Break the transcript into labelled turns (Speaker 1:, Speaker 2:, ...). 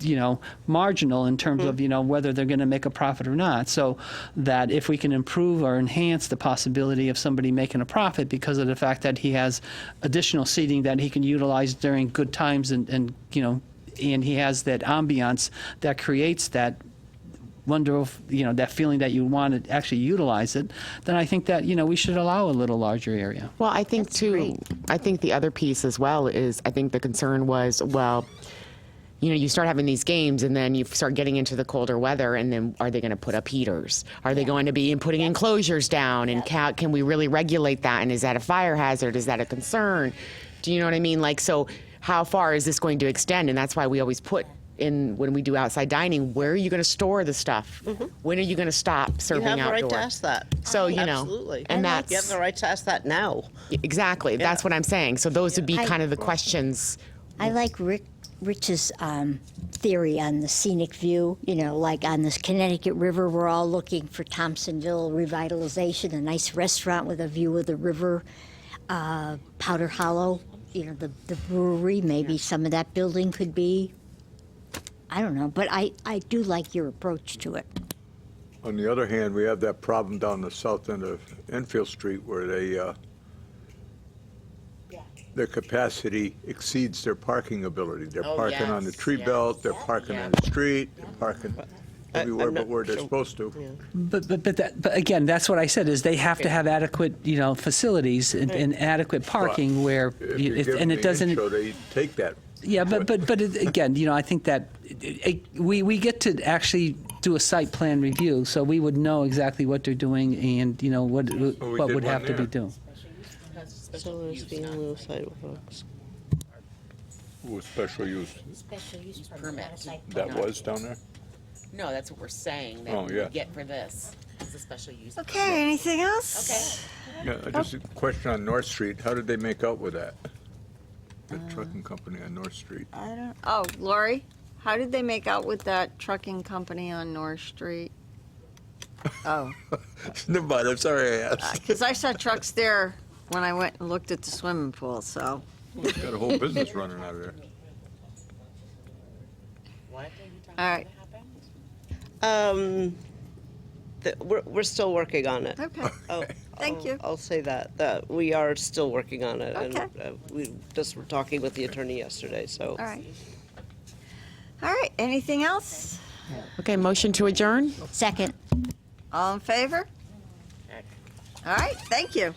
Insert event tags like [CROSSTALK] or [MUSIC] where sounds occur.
Speaker 1: you know, marginal in terms of, you know, whether they're going to make a profit or not. So that if we can improve or enhance the possibility of somebody making a profit because of the fact that he has additional seating that he can utilize during good times and, and you know, and he has that ambiance that creates that wonder if you know that feeling that you want to actually utilize it then i think that you know we should allow a little larger area
Speaker 2: Well, I think too. I think the other piece as well is I think the concern was well, you know, you start having these games and then you start getting into the colder weather, and then are they going to put up heaters? Are they going to be putting enclosures down? And ca- can we really regulate that? And is that a fire hazard? Is that a concern? Do you know what I mean? Like, so how far is this going to extend? And that's why we always put. In when we do outside dining, where are you going to store the stuff? When are you going to stop
Speaker 3: Mm-hmm. You
Speaker 2: serving
Speaker 3: have the
Speaker 2: outdoor?
Speaker 3: right to ask that.
Speaker 2: So, you know,
Speaker 3: Absolutely.
Speaker 2: and that's-
Speaker 3: You have the right to ask that now.
Speaker 2: Exactly. That's what I'm saying. So those would be kind of the questions.
Speaker 4: I like Rick, Rich's um, theory on the scenic view. You know, like on this Connecticut River, we're all looking for Thompsonville revitalization, a nice restaurant with a view of the river, uh, Powder Hollow. You know, the, the brewery. Maybe some of that building could be. I don't know, but I, I do like your approach to it.
Speaker 5: On the other hand, we have that problem down the south end of Enfield Street where they, uh, their capacity exceeds their parking ability. They're
Speaker 3: Oh,
Speaker 5: parking on the
Speaker 3: yes,
Speaker 5: tree
Speaker 3: yes.
Speaker 5: belt, they're parking on the street, they're parking
Speaker 3: I-
Speaker 5: everywhere
Speaker 3: I'm
Speaker 5: but uh,
Speaker 3: not
Speaker 5: where they're
Speaker 3: sure-
Speaker 5: supposed to.
Speaker 1: But, but, but, that, but again, that's what I said, is they have to have adequate, you know, facilities and, and adequate parking where,
Speaker 5: If
Speaker 1: you-
Speaker 5: you
Speaker 1: if-
Speaker 5: give them
Speaker 1: and it
Speaker 5: the
Speaker 1: doesn't,
Speaker 5: intro, they take that.
Speaker 1: yeah, but, but, but it- again, you know, I think that it- it- we, we get to actually do a site plan review, so we would know exactly what they're doing and, you know, what,
Speaker 5: we
Speaker 1: what
Speaker 5: did
Speaker 1: would
Speaker 5: one
Speaker 1: have to be
Speaker 5: there.
Speaker 1: done.
Speaker 3: So there's being lieu of sidewalks.
Speaker 5: With special use,
Speaker 6: Special use
Speaker 7: permit.
Speaker 5: that was down there?
Speaker 7: No, that's what we're saying,
Speaker 5: Oh,
Speaker 7: that we
Speaker 5: yeah.
Speaker 7: would get for this, is a special use.
Speaker 6: Okay, anything else?
Speaker 7: Okay.
Speaker 5: Yeah, I just a question on North Street, how did they make out with that? The trucking company on North Street.
Speaker 6: I don't, oh, Lori, how did they make out with that trucking company on North Street? Oh,
Speaker 5: [LAUGHS] Never mind, I'm sorry I asked.
Speaker 6: because I saw trucks there when I went and looked at the swimming pool, so.
Speaker 5: Got a whole business running out of there.
Speaker 7: What?
Speaker 6: All right,
Speaker 3: Um, the, we're, we're still working on it.
Speaker 6: okay.
Speaker 3: Oh,
Speaker 6: Thank
Speaker 3: I'll-
Speaker 6: you.
Speaker 3: I'll say that, that we are still working on it. and,
Speaker 6: Okay.
Speaker 3: uh, We just were talking with the attorney yesterday, so.
Speaker 6: All right. All right, anything else?
Speaker 2: Okay, motion to adjourn?
Speaker 4: Second.
Speaker 6: All in favor? All right, thank you.